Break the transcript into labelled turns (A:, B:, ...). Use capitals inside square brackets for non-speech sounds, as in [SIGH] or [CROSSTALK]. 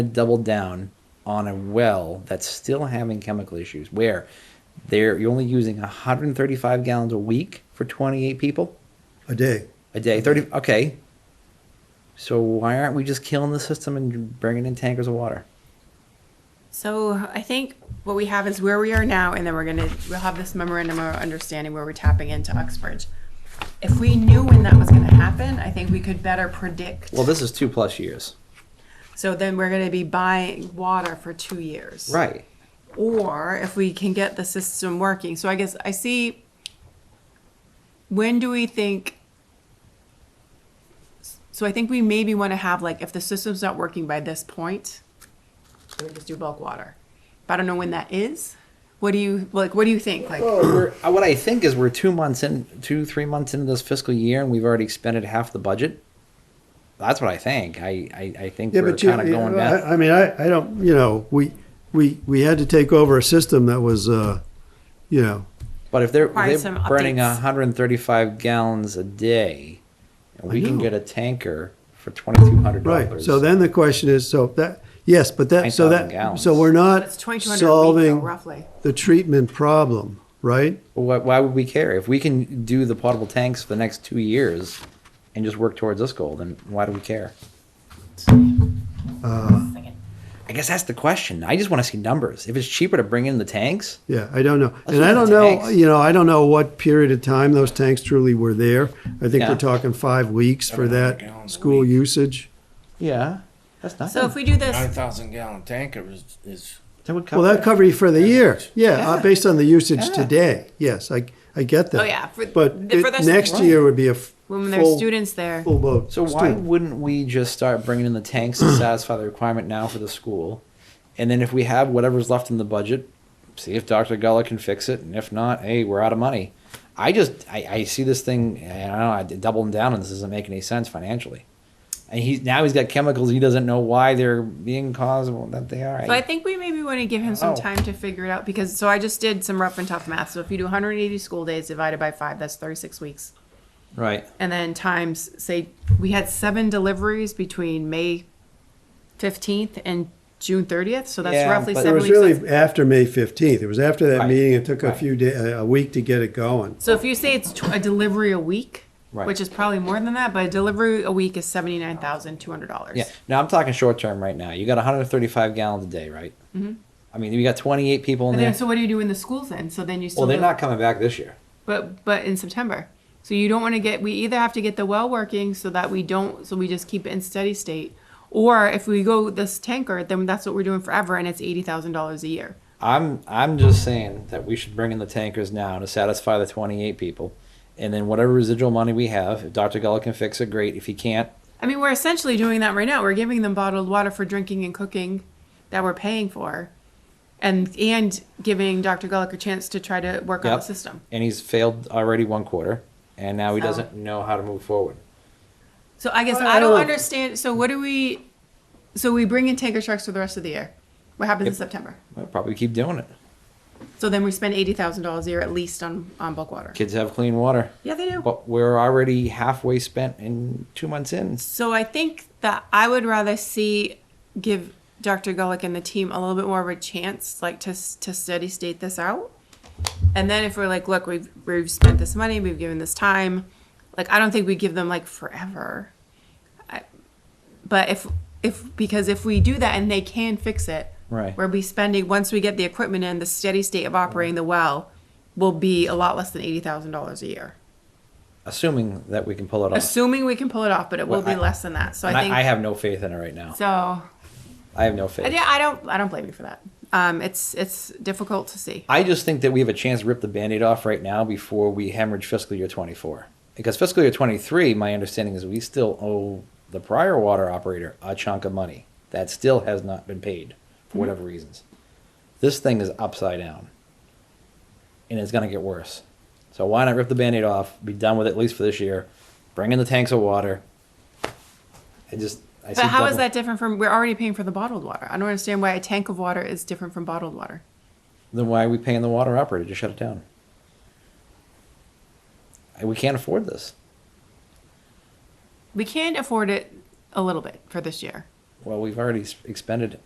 A: doubled down on a well that's still having chemical issues where they're you're only using 135 gallons a week for 28 people
B: a day.
A: a day 30 okay so why aren't we just killing the system and bringing in tankers of water
C: So I think what we have is where we are now, and then we're gonna, we'll have this memorandum of understanding where we're tapping into Uxbridge. If we knew when that was gonna happen, I think we could better predict.
A: well this is two plus years
C: So then we're gonna be buying water for two years.
A: right
C: Or if we can get the system working. So I guess I see, when do we think? So I think we maybe wanna have like, if the system's not working by this point, we just do bulk water. But I don't know when that is. What do you, like, what do you think? Like,
A: Well, we're, uh, what I think is we're two months in, two three months into this fiscal year, and we've already expended half the budget. That's what I think. I I, I think
B: Yeah,
A: we're
B: but you,
A: kind of going
B: you-
A: back.
B: I, I mean, I, I don't, you know, we, we, we had to take over a system that was, uh, you know,
A: but if they're, if
C: Requires
A: they're
C: some
A: burning
C: updates.
A: 135 gallons a day, and we
B: I
A: can
B: know.
A: get a tanker for 2,200
B: right.
A: dollars.
B: So then the question is, so that, yes, but that, so
A: 9,000
B: that,
A: gallons.
B: so we're not
C: it's twenty-two hundred a week, though,
B: solving
C: roughly.
B: the treatment problem, right?
A: why, why would we care if we can do the potable tanks for the next two years and just work towards this goal? Then why do we care? I guess that's the question. I just want to see numbers. If it's cheaper to bring in the tanks,
B: Yeah, I don't know.
A: Let's
B: And I
A: look at
B: don't know,
A: tanks.
B: you know, I don't know what period of time those tanks truly were there. I think
A: Yeah.
B: we're talking five weeks for
D: 700
B: that
D: gallons a
B: school
D: week.
B: usage.
A: yeah, that's not.
C: So if we do
D: Nine
C: this,
D: thousand gallon tanker is, is
A: That would cover.
B: Well, that cover you for the year. Yeah,
A: [LAUGHS]
B: uh,
A: Yeah.
B: based on the usage
A: Yeah.
B: today. Yes, I, I get that.
C: Oh, yeah, for-
B: But
C: the- for
B: it-
C: the-
B: next
A: Right.
B: year would be a f-
C: when there's
B: full-
C: students there,
B: Full boat.
A: so why
B: student.
A: wouldn't we just start bringing in the tanks to satisfy the requirement now for the school, and then if we have whatever's left in the budget, see if Dr. Gullah can fix it, and if not, hey, we're out of money. I just I, I see this thing. and I don't know. I did doubling down on this doesn't make any sense financially. And he's now he's got chemicals. He doesn't know why they're being caused well, that they are.
C: So I think we maybe want to give him
A: Oh.
C: some time to figure it out because, so I just did some rough and tough math. So if you do 180 school days divided by five, that's 36 weeks.
A: right.
C: And then times, say, we had seven deliveries between May 15th and June 30th. So that's
A: Yeah,
C: roughly
A: but-
B: It
C: seven
B: was
C: weeks.
B: really after May 15th. It was after that
A: Right,
B: meeting. It took a
A: right.
B: few day, a a week to get it going.
C: so if you say it's tw- a delivery a week,
A: Right.
C: which is probably more than that, but a delivery a week is $79,200.
A: Yeah. Now I'm talking short term right now. You got 135 gallons a day, right? Mm-hmm. I mean, you got 28 people in
C: And
A: there.
C: then, so what do you do in the schools then? So then you still
A: well, they're
C: do-
A: not coming back this year.
C: but but in September. So you don't want to get we either have to get the well working so that we don't so we just keep it in steady state or if we go this tanker then that's what we're doing forever and it's $80,000 a year.
A: I'm I'm just saying that we should bring in the tankers now to satisfy the 28 people, and then whatever residual money we have, if Dr. Gullah can fix it, great. If he can't,
C: I mean, we're essentially doing that right now. We're giving them bottled water for drinking and cooking that we're paying for and and giving Dr. Gullick a chance to try to work on
A: yep.
C: the system.
A: And he's failed already one quarter, and now he
C: So-
A: doesn't know how to move forward.
C: So I guess
B: Well,
C: I
B: I
C: don't
B: don't-
C: understand so what do we so we bring in tanker trucks for the rest of the year. What happens in
A: If-
C: September?
A: We'll probably keep doing it.
C: So then we spend $80,000 a year at least on on bulk water.
A: Kids have clean water,
C: Yeah, they do.
A: but we're already halfway spent in two months in.
C: So I think that I would rather see give Dr. Gullick and the team a little bit more of a chance, like to s- to steady state this out. And then if we're like, look, we've we've spent this money, we've given this time, like I don't think we give them like forever. I, but if if because if we do that and they can fix it,
A: Right.
C: We'll be spending once we get the equipment in, the steady state of operating the well will be a lot less than eighty thousand dollars a year.
A: Assuming that we can pull it off,
C: Assuming we can pull it off, but it will
A: Well, I-
C: be less than that. So
A: And
C: I think
A: I, I have no faith in it right now.
C: so
A: I have no faith.
C: yeah, I don't. I don't blame you for that. Um, it's it's difficult to see.
A: I just think that we have a chance to rip the band-aid off right now before we hemorrhage fiscal year 24. Because fiscal year 23, my understanding is we still owe the prior water operator a chunk of money that still has not been paid for whatever reasons. This thing is upside down. And it's going to get worse. So why not rip the band-aid off, be done with it at least for this year, bring in the tanks of water. I just I
C: But how is
A: double-
C: that different from? We're already paying for the bottled water. I don't understand why a tank of water is different from bottled water.
A: Then why are we paying the water operator to shut it down? I- We can't afford this.
C: We can afford it a little bit for this year.
A: well, we've already s- expended